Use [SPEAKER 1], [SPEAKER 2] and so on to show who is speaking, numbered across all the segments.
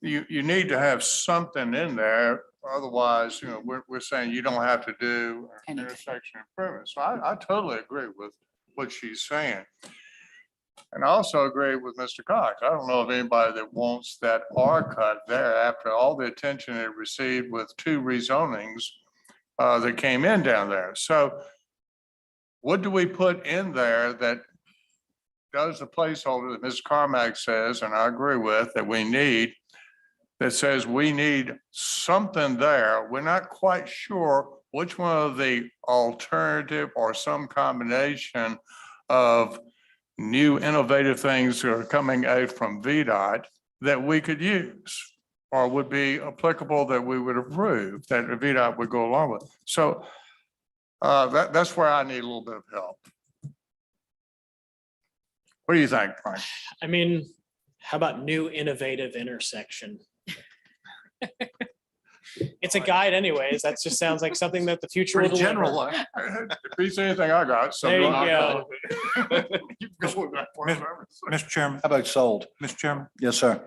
[SPEAKER 1] you, you need to have something in there, otherwise, you know, we're, we're saying you don't have to do an
[SPEAKER 2] Anything.
[SPEAKER 1] intersection improvement. So I, I totally agree with what she's saying. And I also agree with Mr. Cox. I don't know of anybody that wants that R cut there after all the attention it received with two rezonings uh, that came in down there. So what do we put in there that does the placeholder that Ms. Carmack says, and I agree with, that we need that says we need something there. We're not quite sure which one of the alternative or some combination of new innovative things that are coming out from VDOT that we could use or would be applicable that we would approve, that VDOT would go along with. So uh, that, that's where I need a little bit of help. What do you think, Frank?
[SPEAKER 3] I mean, how about new innovative intersection? It's a guide anyways. That just sounds like something that the future will
[SPEAKER 4] Pretty
[SPEAKER 3] deliver.
[SPEAKER 4] general. huh?
[SPEAKER 1] If he's anything I got, so.
[SPEAKER 3] There you go.
[SPEAKER 1] Keep going with
[SPEAKER 5] Miss-
[SPEAKER 1] that.
[SPEAKER 5] Mr. Chairman,
[SPEAKER 4] How about sold?
[SPEAKER 5] Mr. Chairman,
[SPEAKER 4] Yes, sir.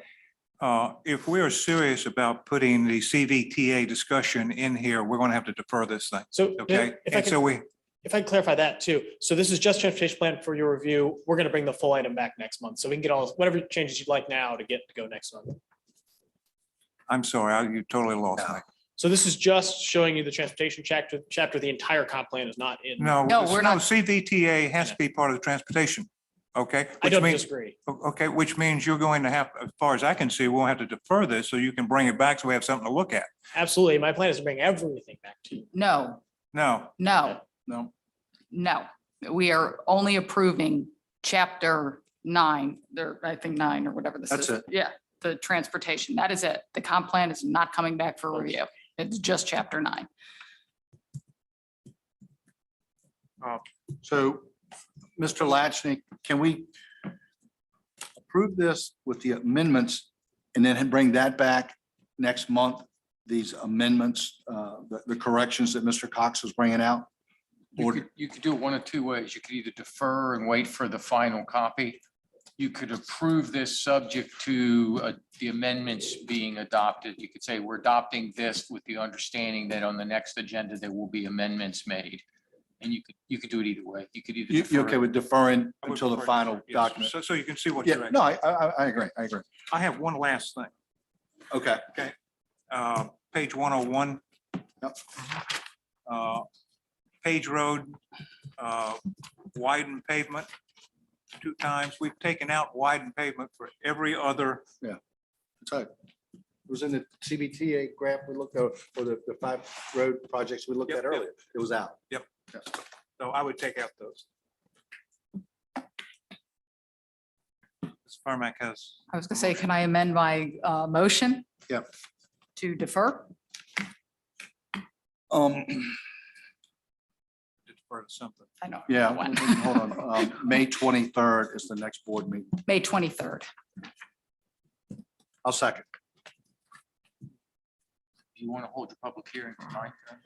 [SPEAKER 5] uh, if we are serious about putting the CVTA discussion in here, we're going to have to defer this thing,
[SPEAKER 3] So
[SPEAKER 5] okay?
[SPEAKER 3] if I
[SPEAKER 5] And so
[SPEAKER 3] could,
[SPEAKER 5] we,
[SPEAKER 3] if I could clarify that too. So this is just transportation plan for your review. We're going to bring the full item back next month. So we can get all, whatever changes you'd like now to get to go next month.
[SPEAKER 5] I'm sorry, I- you totally lost me.
[SPEAKER 3] So this is just showing you the transportation chapter, chapter. The entire comp plan is not in.
[SPEAKER 5] No,
[SPEAKER 2] No,
[SPEAKER 5] it's-
[SPEAKER 2] we're
[SPEAKER 5] no,
[SPEAKER 2] not-
[SPEAKER 5] CVTA has to be part of the transportation, okay?
[SPEAKER 3] I
[SPEAKER 5] Which
[SPEAKER 3] don't
[SPEAKER 5] means,
[SPEAKER 3] disagree.
[SPEAKER 5] o- okay, which means you're going to have, as far as I can see, we'll have to defer this so you can bring it back so we have something to look at.
[SPEAKER 3] Absolutely. My plan is to bring everything back to you.
[SPEAKER 2] No,
[SPEAKER 5] No,
[SPEAKER 2] no,
[SPEAKER 4] No.
[SPEAKER 2] no. We are only approving chapter nine, there, I think nine or whatever this is.
[SPEAKER 4] That's it.
[SPEAKER 2] Yeah, the transportation. That is it. The comp plan is not coming back for review. It's just chapter nine.
[SPEAKER 4] So, Mr. Latchnik, can we approve this with the amendments and then bring that back next month? These amendments, uh, the, the corrections that Mr. Cox was bringing out?
[SPEAKER 6] You
[SPEAKER 4] Or-
[SPEAKER 6] could, you could do it one of two ways. You could either defer and wait for the final copy. You could approve this subject to uh, the amendments being adopted. You could say, we're adopting this with the understanding that on the next agenda, there will be amendments made. And you could, you could do it either way. You could either.
[SPEAKER 4] You, you
[SPEAKER 6] defer
[SPEAKER 4] okay
[SPEAKER 6] it.
[SPEAKER 4] with deferring
[SPEAKER 5] I would
[SPEAKER 4] until the
[SPEAKER 5] prefer-
[SPEAKER 4] final
[SPEAKER 5] yes,
[SPEAKER 4] document?
[SPEAKER 5] So, so you can see what
[SPEAKER 4] Yeah,
[SPEAKER 5] you're, at.
[SPEAKER 4] no, I, I, I- I agree, I agree.
[SPEAKER 5] I have one last thing.
[SPEAKER 4] Okay. Okay.
[SPEAKER 5] uh, page one oh one. Uh,
[SPEAKER 4] Yep.
[SPEAKER 5] Page Road, uh, widened pavement two times. We've taken out widened pavement for every other.
[SPEAKER 4] So it was in the CBTA graph we looked at, or the, the five road projects we looked
[SPEAKER 5] Yep,
[SPEAKER 4] at
[SPEAKER 5] yep.
[SPEAKER 4] earlier. It was out.
[SPEAKER 5] So I would take out those. Ms. Carmack has,
[SPEAKER 2] I was gonna say, can I amend my uh motion?
[SPEAKER 4] Yep.
[SPEAKER 2] To defer?
[SPEAKER 4] Um,
[SPEAKER 5] deferred something.
[SPEAKER 2] I know.
[SPEAKER 4] yeah,
[SPEAKER 2] One.
[SPEAKER 4] hold on. Um, May twenty-third is the next board meeting.
[SPEAKER 2] May twenty-third.
[SPEAKER 4] I'll second.
[SPEAKER 6] You want to hold your public hearing tonight? then?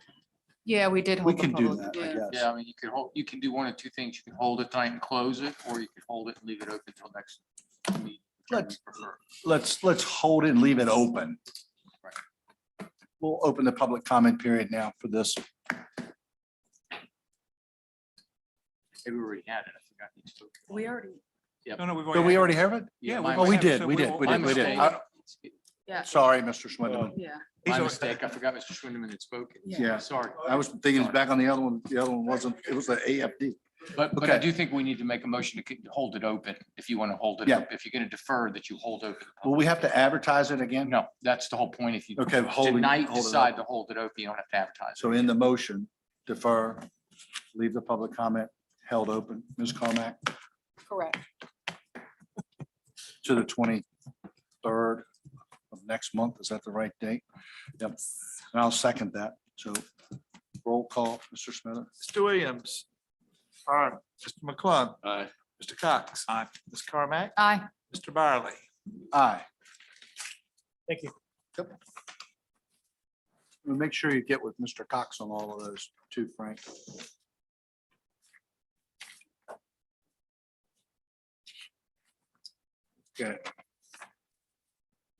[SPEAKER 2] Yeah, we did.
[SPEAKER 4] We
[SPEAKER 2] hold the
[SPEAKER 4] can do
[SPEAKER 2] public-
[SPEAKER 4] that,
[SPEAKER 2] yeah.
[SPEAKER 4] I guess.
[SPEAKER 6] Yeah, I mean, you could hold, you can do one of two things. You can hold it tonight and close it, or you could hold it and leave it open until next. meeting. whichever you prefer.
[SPEAKER 4] Let's, let's hold it and leave it open. We'll open the public comment period now for this.
[SPEAKER 6] Maybe we already had it. I forgot. you spoke.
[SPEAKER 7] We already,
[SPEAKER 5] No, no, we've
[SPEAKER 4] Did
[SPEAKER 5] already.
[SPEAKER 4] we already have it?
[SPEAKER 6] Yeah,
[SPEAKER 5] we
[SPEAKER 6] my
[SPEAKER 4] Oh, we
[SPEAKER 6] mistake.
[SPEAKER 4] did,
[SPEAKER 5] So
[SPEAKER 4] we did,
[SPEAKER 5] will-
[SPEAKER 4] we
[SPEAKER 6] my
[SPEAKER 4] did, we did.
[SPEAKER 6] mistake.
[SPEAKER 4] I-
[SPEAKER 7] yeah,
[SPEAKER 4] Sorry, Mr. Schwindeman.
[SPEAKER 7] yeah.
[SPEAKER 5] he's
[SPEAKER 6] My
[SPEAKER 5] al-
[SPEAKER 6] mistake. I forgot Mr. Schwindeman had spoken.
[SPEAKER 7] Yeah.
[SPEAKER 4] Yeah,
[SPEAKER 6] Sorry,
[SPEAKER 4] I was thinking back on the other one. The other one wasn't, it was the AFD.
[SPEAKER 6] but, but I
[SPEAKER 4] Okay.
[SPEAKER 6] do think we need to make a motion to keep- to hold it open, if you want to hold it.
[SPEAKER 4] Yeah.
[SPEAKER 6] up. If you're going to defer, that you hold open.
[SPEAKER 4] Will we have to advertise it again?
[SPEAKER 6] No, that's the whole point. If you
[SPEAKER 4] Okay, hold it.
[SPEAKER 6] tonight
[SPEAKER 4] hold it
[SPEAKER 6] decide
[SPEAKER 4] open.
[SPEAKER 6] to hold it open, you don't have to advertise.
[SPEAKER 4] So in the motion, defer, leave the public comment held open, Ms. Carmack,
[SPEAKER 7] Correct.
[SPEAKER 4] to the twenty-third of next month. Is that the right date? Yep. And I'll second that. So roll call, Mr. Smith.
[SPEAKER 8] Mr. Williams. Aye. Mr. McClung.
[SPEAKER 6] Aye.
[SPEAKER 8] Mr. Cox. Aye. Ms. Carmack.
[SPEAKER 2] Aye.
[SPEAKER 8] Mr. Barley.
[SPEAKER 4] Aye.
[SPEAKER 3] Thank you.
[SPEAKER 4] And Make sure you get with Mr. Cox on all of those too, Frank. Okay.